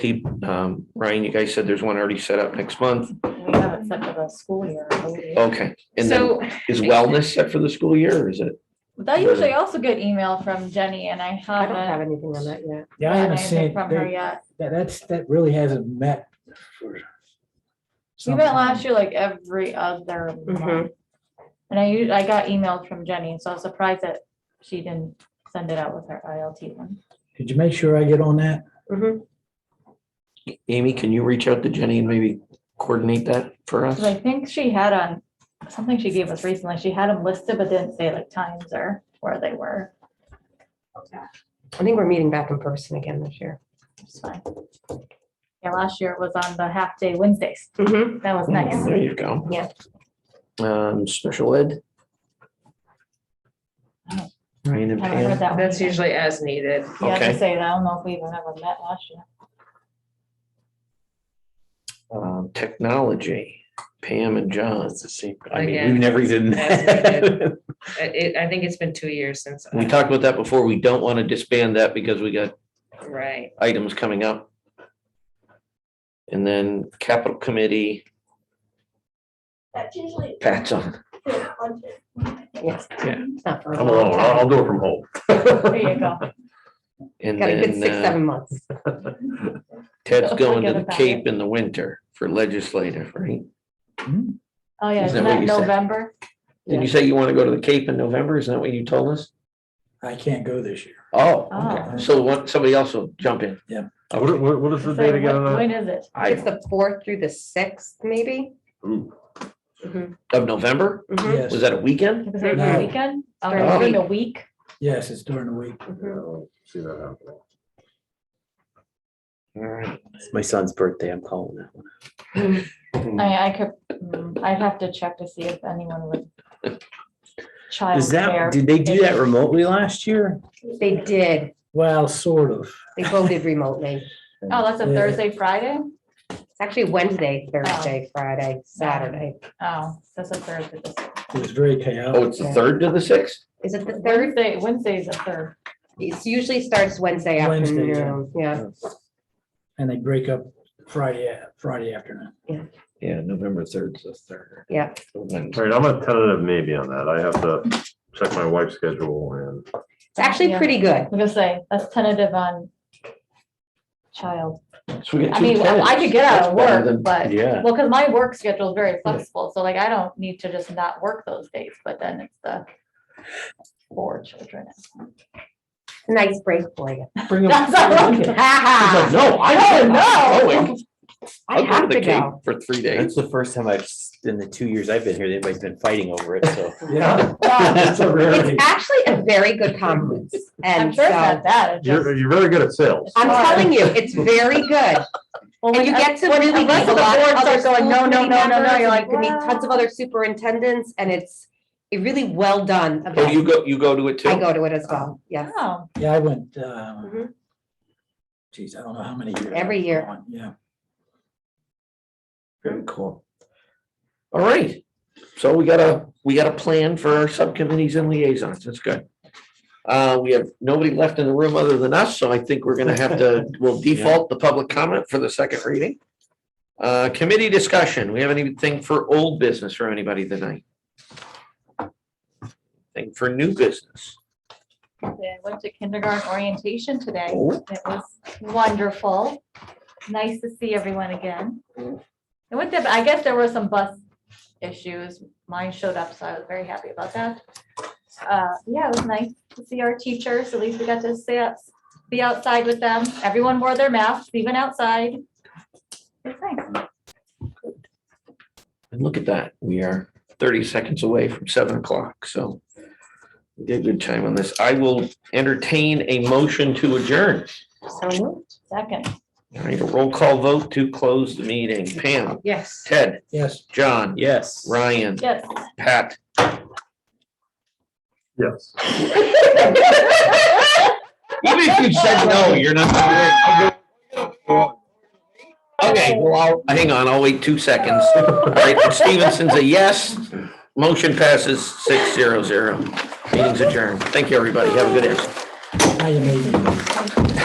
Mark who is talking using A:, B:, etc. A: keep, um, Ryan, you guys said there's one already set up next month.
B: We haven't set for the school year. I believe.
A: Okay. And then
C: So,
A: is wellness set for the school year or is it?
D: I usually also get email from Jenny and I
B: I don't have
D: haven't.
B: anything on that yet.
E: Yeah, I
D: gotten
E: haven't
D: anything
E: seen,
D: From her
E: they-
D: yet.
E: that, that's, that really hasn't met for.
D: We
E: some
D: went
E: time.
D: last year like every other
B: Mm-hmm.
D: month. And I, u- I got emails from Jenny, so I was surprised that she didn't send it out with her ILT one.
E: Did you make sure I get on that?
B: Mhm.
A: Amy, can you reach out to Jenny and maybe coordinate that for us?
D: Cause I think she had on, something she gave us recently, she had them listed, but didn't say like times or where they were.
B: I think we're meeting back in person again this year.
D: It's fine. Yeah, last year it was on the half day Wednesdays.
B: Mhm.
D: That was
A: Mm, There
D: nice.
A: you go.
B: Yeah.
A: Um, special ed. Ryan and
D: Oh. I haven't heard
A: Pam,
D: that one
C: that's
D: yet.
C: usually as needed.
D: Yeah, I was
A: Okay.
D: gonna say, I don't know if we even ever met last year.
A: um, technology, Pam and John. It's the same. I mean,
C: Again,
A: we've never even.
C: as I, it- I think it's been two years since.
A: We talked about that before. We don't want to disband that because we got
C: Right.
A: items coming up. And then capital committee,
F: That's usually
A: Pat's on.
F: the budget.
B: Yes.
A: Yeah.
B: It's not for a
G: I'm
B: long
G: alone. I'll
B: time.
G: I'll do it from home.
D: There you go.
A: And
B: Got a good
A: then
B: six,
A: uh,
B: seven months.
A: Ted's going to
D: Forget
A: the
D: about
A: Cape in the winter for legislative, right?
E: Hmm?
D: Oh, yeah,
A: Is that
D: isn't
A: what
D: that
A: you said?
D: November?
A: Did you say you want to go to the Cape in November? Isn't that what you told us?
E: I can't go this year.
A: Oh,
D: Oh.
A: okay. so what, somebody else will jump in.
E: Yeah.
G: Uh, What, what, what is the
D: It's
G: date
D: like,
G: again?
D: what-
G: on that?
D: When is it?
B: It's
A: I,
B: the fourth through the sixth, maybe?
G: Ooh,
A: of November?
B: Mhm.
E: Yes,
A: Was that a weekend?
D: Is it
E: No.
D: the weekend? Oh,
B: During
A: the
D: during
B: week.
D: the week?
E: yes, it's during the week.
G: yeah, I don't See that happening.
A: All right.
H: It's my son's birthday. I'm calling that one.
D: I, I could, mm, I'd have to check to see if anyone would.
H: Is that,
D: Childcare.
H: did they do that remotely last year?
B: They did.
E: Well, sort of.
B: They voted remotely.
D: Oh, that's a
E: Yeah.
D: Thursday, Friday?
B: It's actually Wednesday, Thursday, Friday, Saturday.
D: Oh, that's a Thursday. this-
E: It was very
A: Oh,
E: chaotic.
A: it's the third to the sixth?
B: Is it the third?
D: Thursday, Wednesday's the third.
B: It usually starts Wednesday
E: Wednesday, yeah.
B: afternoon. Yeah.
E: And they break up Friday, Friday afternoon.
A: Yeah, November third is the third.
B: Yeah.
G: All right, I'm a tentative maybe on that. I have to check my wife's schedule and
B: It's actually
D: Yeah.
B: pretty good.
D: I'm gonna say, that's tentative on child.
A: So we got
D: I
A: two
D: mean,
A: tenants.
D: I could get out
A: That's
D: of
A: better
D: work,
A: than-
D: but,
H: Yeah.
D: well, because my work schedule is very flexible, so like I don't need to just not work those days, but then it's the four children.
B: It's a nice break for you.
A: Bring them-
D: That's not
A: He's
B: Ha
A: like,
B: ha.
A: No, I Oh,
D: don't know.
A: don't know.
B: I have to go.
A: For three
H: That's
A: days.
H: the first time I've, s- in the two years I've been here, anybody's been fighting over it, so.
E: Yeah.
B: Well,
E: That's a rarity.
B: It's actually a very good conference.
D: I'm
B: And so
D: sure it's not
B: I'm
D: that. it's just-
G: you're, you're very good at sales.
B: telling you, it's very good.
D: Well,
B: And you
D: when-
B: get to
D: when
B: really
D: the
B: meet
D: rest
B: a
D: of the
B: lot of
D: boards
B: other
D: are going,
B: school
D: no, no,
B: committee
D: no, no, no,
B: members,
D: you're
B: and
D: like,
B: You can meet tons of other superintendents and it's a really well-done
A: Oh, you
B: event.
A: go, you go to it too?
B: I go to it as well. Yes.
D: wow.
E: Yeah, I went, um,
B: Mhm.
E: geez, I don't know how many years.
B: Every
E: I've
B: year.
E: gone, Yeah.
A: Very cool. All right, so we got a, we got a plan for our subcommittees and liaisons, that's good. Uh, we have nobody left in the room other than us, so I think we're gonna have to, we'll default the public comment for the second reading. Uh, committee discussion, we have anything for old business for anybody tonight? Thing for new business,
D: I went to kindergarten orientation today.
A: Oh.
D: It was wonderful. Nice to see everyone again. I went there, but I guess there were some bus issues. Mine showed up, so I was very happy about that. Uh, yeah, it was nice to see our teachers. At least we got to stay up, be outside with them. Everyone wore their masks, even outside. It's nice.
A: and look at that, we are thirty seconds away from seven o'clock, so. we Did good time on this, I will entertain a motion to adjourn.
D: Oh,
B: So
D: Second,
A: I need a roll call vote to close the meeting. Pam,
C: Yes.
A: Ted,
E: Yes.
A: John,
H: Yes.
A: Ryan,
D: yes.
A: Pat.
G: Yes.
A: Even if you said no, you're not. gonna win. Okay, well, I'll, hang on, I'll wait two seconds. All right, Stevenson's a yes. Motion passes six zero zero. Meeting's adjourned. Thank you, everybody. Have a good day.
E: I am a-